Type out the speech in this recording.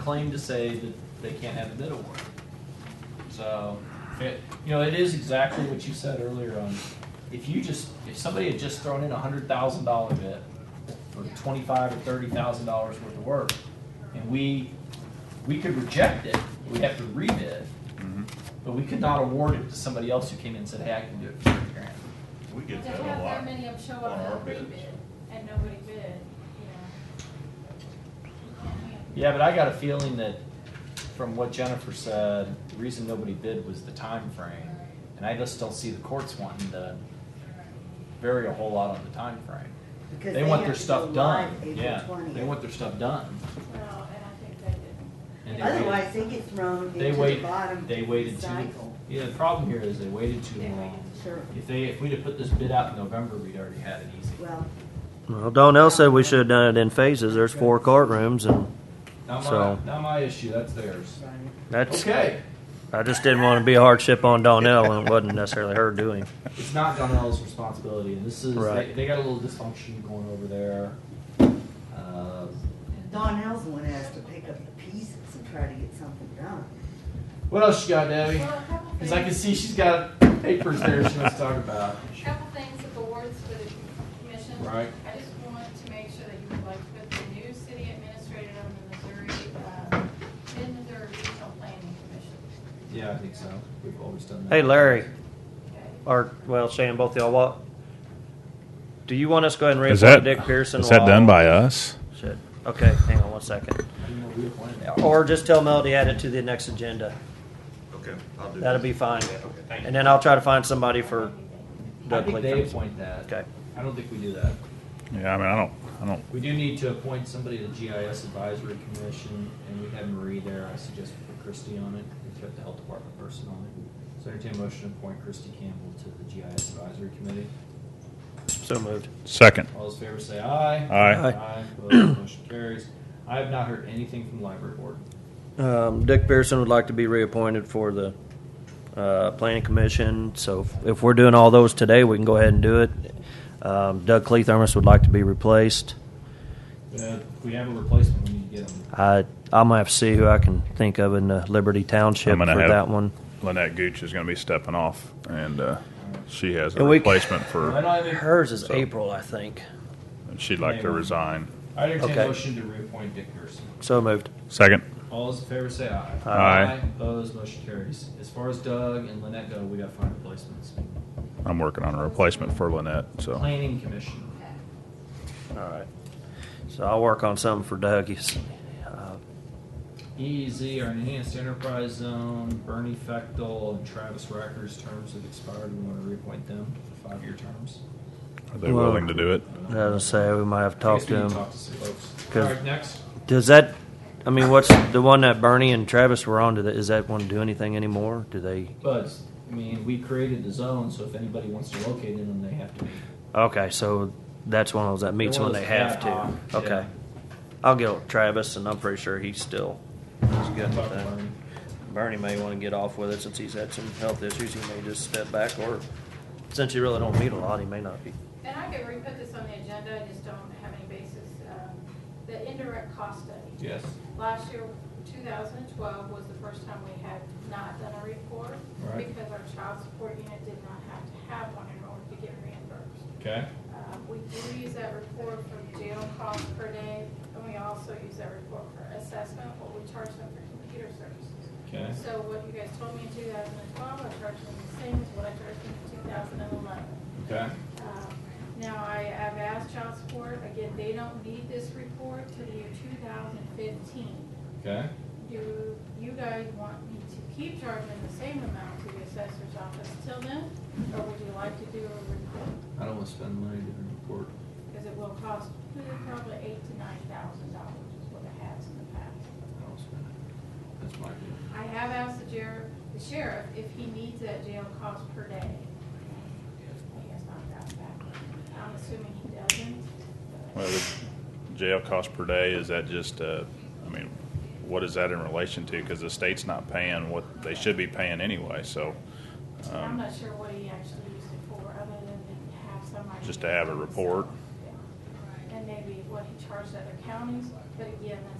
claim to say that they can't have a bid award. So, it, you know, it is exactly what you said earlier on, if you just, if somebody had just thrown in a hundred thousand dollar bid for twenty-five or thirty thousand dollars worth of work, and we, we could reject it, we'd have to rebid, but we could not award it to somebody else who came in and said, hey, I can do it for thirty grand. We To get that have a lot. that many of them show up on our and pre-bid, bids. and nobody bid, you know. Yeah, but I got a feeling that from what Jennifer said, the reason nobody bid was the time frame, and I just don't see the courts wanting to vary a whole lot on the time frame. Because They want have their to stuff go done. live April Yeah, 20th. they want their stuff done. Well, and I think they did. And they waited- Otherwise, they get thrown They into the waited, bottom they waited too. cycle. Yeah, the problem here is they waited too They long. Sure, If they, if we'd have put this bid out in November, we'd already had it easy. well, Well, Donnell said we should have done it in phases. There's four courtrooms, and Not my, So- not my issue, that's theirs. right. that's. Okay, I just didn't want to be a hardship on Donnell when it wasn't necessarily her doing. it's not Donnell's responsibility, and this is, they, Right. they got a little dysfunction going over there. Uh, and- Donnell's the one that has to pick up the pieces and try to get something done. What else you got, Debbie? Well, a couple Cause I can things- see she's got papers there she wants to talk about. Couple things of awards for the commission. Right. I just want to make sure that you would like to put the new city administrator on the Missouri, uh, Mid-Missouri Regional Planning Commission. Yeah, I think so. We've always done that. Hey, Larry, Okay. or well, Shane, both y'all, what? Do you want us to go ahead and Is reappoint that, Dick Pearson? is that while- done by uh, us? Shit. Okay, hang on one second. I didn't know we appointed that. Or just tell Melody add it to the next agenda. Okay, I'll do that. That'll be fine. Okay, thank you. And then I'll try to find somebody for. I Doug think they Lincoln. appoint that. Okay. I don't think we do that. Yeah, I mean, I don't, I don't, We do need to appoint somebody to the GIS Advisory Commission, and we have Marie there. I suggest we put Christie on it. We've got the health department person on it. So entertain a motion to appoint Christie Campbell to the GIS Advisory Committee. So moved. second. All those in favor say aye. Aye. Aye. Aye, opposed, motion carries. I have not heard anything from the library board. Um, Dick Pearson would like to be reappointed for the uh, planning commission. So if- if we're doing all those today, we can go ahead and do it. Um, Doug Cleathermos would like to be replaced. Uh, if we have a replacement, we need to get them. I I'm gonna have to see who I can think of in uh, Liberty Township I'm for gonna have- that one. Lynette Gooch is going to be stepping off, and uh, she has a And we- replacement I for, don't have any- Hers is So- April, I think. and she'd like to resign. I entertain a Okay. motion to reappoint Dick Pearson. So moved. Second. All those in favor say aye. Aye. Aye. Opposed, motion carries. As far as Doug and Lynette go, we got five replacements. I'm working on a replacement for Lynette, so. Planning Commission. All right. So I'll work on something for Doug. He's, uh, EEZ, E our Enhanced Enterprise Zone, Bernie Fechtel and Travis Racker's terms have expired. We want to reappoint them for five-year terms. Are they willing to do it? I was gonna say we might have to I talk guess to we need him. Talk to some folks. All Good. right, next. Does that? I mean, what's the one that Bernie and Travis were on? Do that, is that one do anything anymore? Do they? But, I mean, we created the zone, so if anybody wants to locate in them, they have to meet. Okay, so that's one of those that meets They're when one they of those have ad hoc, to. Okay, yeah. I'll get with Travis, and I'm pretty sure he's still he's good with Talk to that. Bernie. Bernie may want to get off with it since he's had some health issues. He may just step back, or since you really don't meet a lot, he may not be. And I could re-put this on the agenda, I just don't have any basis. Um, The indirect cost study. Yes, Last year, 2012, was the first time we had not done a report Right. because our child support unit did not have to have one in order to get reimbursed. okay. Uh, We do use that report for jail costs per day, and we also use that report for assessment, what we charge them for computer services. Okay. So what you guys told me in 2012, I charged them the same as what I charged them in 2011. Okay. Um, Now, I, I've asked child support, again, they don't need this report till the year two thousand fifteen. Okay. Do you guys want me to keep charging the same amount to the assessor's office till then? Or would you like to do a report? I don't want to spend money doing a report. Because it will cost probably eight to nine thousand dollars is what it has in the past. I don't spend it. That's my deal. I have asked the sheriff, the sheriff if he needs that jail cost per day. He has not gotten back. I'm assuming he doesn't. but- Well, the jail cost per day, is that just, uh, I mean, what is that in relation to? Because the state's not paying what they should be paying anyway, so. I'm um, not sure what he actually used it for, other than to have somebody. Just to have a report. Yeah. And maybe what he charged other counties, but again, that's